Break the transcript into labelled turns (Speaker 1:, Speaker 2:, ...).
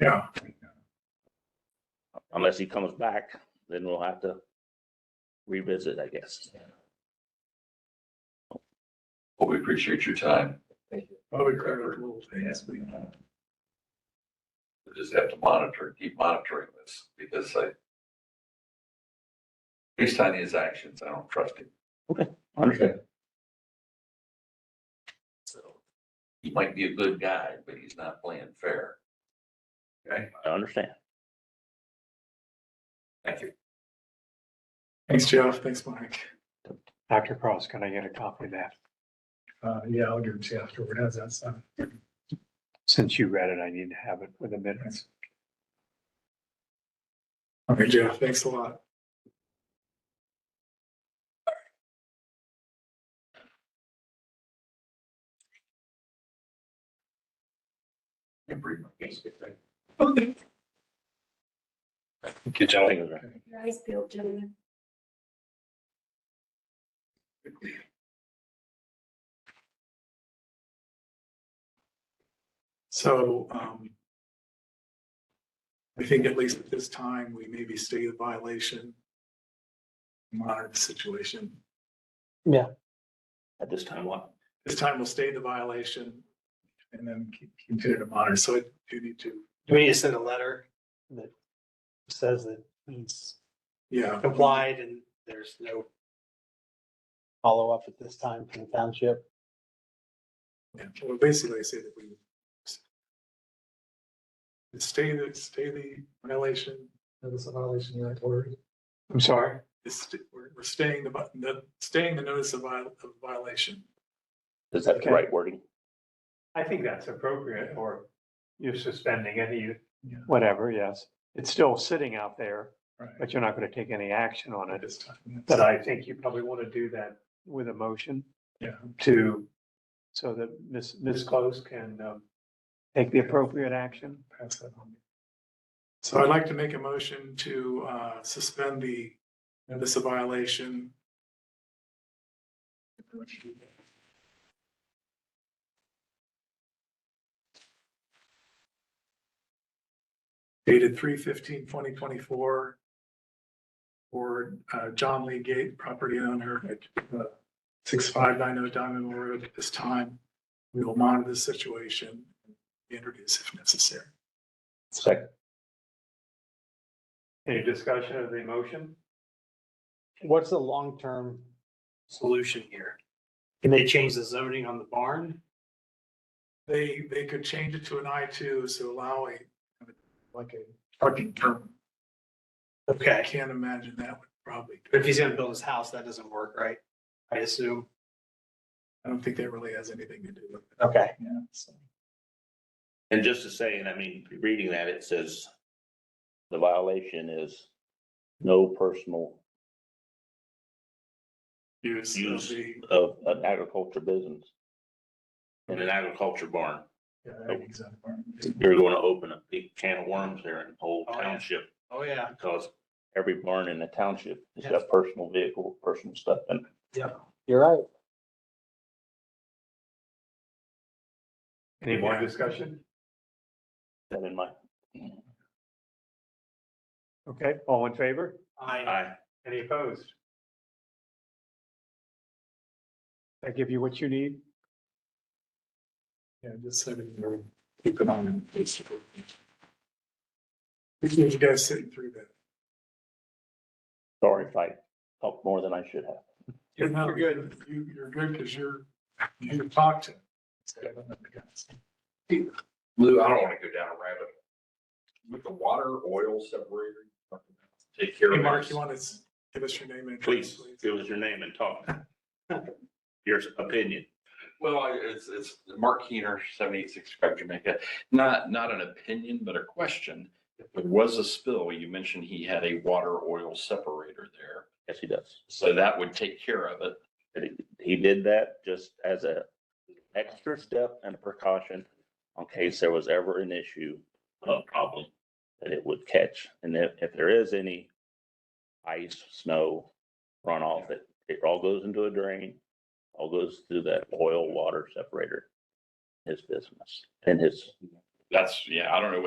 Speaker 1: Yeah.
Speaker 2: Unless he comes back, then we'll have to revisit, I guess.
Speaker 3: Well, we appreciate your time.
Speaker 1: Probably clear the rules, they asked me.
Speaker 3: We just have to monitor, keep monitoring this because I, based on his actions, I don't trust him.
Speaker 2: Understood.
Speaker 3: So he might be a good guy, but he's not playing fair.
Speaker 2: I understand.
Speaker 3: Thank you.
Speaker 1: Thanks, Jeff. Thanks, Mike.
Speaker 4: Dr. Cross, can I get a copy of that?
Speaker 1: Uh, yeah, I'll give it to you afterward. How's that sound?
Speaker 4: Since you read it, I need to have it for the minutes.
Speaker 1: Okay, Jeff, thanks a lot.
Speaker 3: Can bring my case.
Speaker 1: Okay.
Speaker 4: Good job.
Speaker 2: Thank you.
Speaker 5: Your eyes peeled, gentlemen.
Speaker 1: So, um, I think at least at this time, we maybe stay the violation, monitor the situation.
Speaker 2: At this time, what?
Speaker 1: This time we'll stay the violation and then keep- continue to monitor. So I do need to,
Speaker 6: Do we need to send a letter that says that he's
Speaker 1: yeah.
Speaker 6: complied and there's no follow-up at this time from the township?
Speaker 1: Yeah, well, basically, I say that we stay the, stay the violation. Notice of violation, you're ordered.
Speaker 4: I'm sorry.
Speaker 1: It's, st- we're, we're staying the, vi- the, staying the notice of vi- of violation.
Speaker 2: Is that the right wording?
Speaker 4: I think that's appropriate or you're suspending any.
Speaker 1: Yeah.
Speaker 4: Whatever, yes. It's still sitting out there,
Speaker 1: Right.
Speaker 4: but you're not going to take any action on
Speaker 1: At
Speaker 4: it.
Speaker 1: this time. yes.
Speaker 4: But I think you probably want to do that. With a motion
Speaker 1: Yeah,
Speaker 4: to, so that Ms. Ms. Close can um, take the appropriate action.
Speaker 1: pass that on. So I'd like to make a motion to, uh, suspend the notice of violation. Dated 2024 for, uh, John Lee Gate, property owner at, uh, six five nine oh Diamond Mill Road at this time. We will monitor the situation introduce if necessary.
Speaker 2: Second.
Speaker 4: Any discussion of the motion?
Speaker 6: What's the long-term solution here? Can they change the zoning on the barn?
Speaker 1: They, they could change it to an I two, so allow a, like a parking term. I
Speaker 6: Okay,
Speaker 1: can't imagine that would probably,
Speaker 6: but if he's gonna build his house, that doesn't work, right? I assume.
Speaker 1: I don't think that really has anything to do with it.
Speaker 6: Okay.
Speaker 1: Yeah, so.
Speaker 2: And just to say, and I mean, reading that, it says the violation is no personal
Speaker 1: Use of
Speaker 2: Use.
Speaker 1: the-
Speaker 2: of an agriculture business in an agriculture barn.
Speaker 1: yeah, that exact part.
Speaker 2: You're going to open a big can of worms there in the whole
Speaker 6: Oh, yeah.
Speaker 2: township
Speaker 6: Oh, yeah.
Speaker 2: because every barn in the township has got personal vehicle, personal stuff in it.
Speaker 6: You're right.
Speaker 4: Any more discussion?
Speaker 2: That in mind.
Speaker 4: Okay, all in favor?
Speaker 6: I,
Speaker 2: Aye.
Speaker 4: Any opposed? I give you what you need?
Speaker 1: Yeah, just so we can keep it on. Appreciate you guys sitting through that.
Speaker 2: Sorry if I talked more than I should have.
Speaker 1: You're
Speaker 6: You're good.
Speaker 1: You, you're good because you're, you talked to.
Speaker 3: Lou, I don't want to go down a rabbit. hole. With the water oil separator, take care
Speaker 1: Hey,
Speaker 3: of
Speaker 1: Mark,
Speaker 3: it.
Speaker 1: you want to s- give us your name and address,
Speaker 2: Please, give us your name and talk. Your opinion.
Speaker 3: Well, I- it's, it's Mark Keener, seventy-six Craig Jamaica. Not, not an opinion, but a question. If there was a spill, you mentioned he had a water oil separator there.
Speaker 2: Yes, he does.
Speaker 3: So that would take care of it.
Speaker 2: He did that just as a extra step and a precaution in case there was ever an issue, a problem that it would catch. And if, if there is any ice, snow runoff, it, it all goes into a drain, all goes through that oil water separator. His business and his
Speaker 3: That's, yeah, I don't know what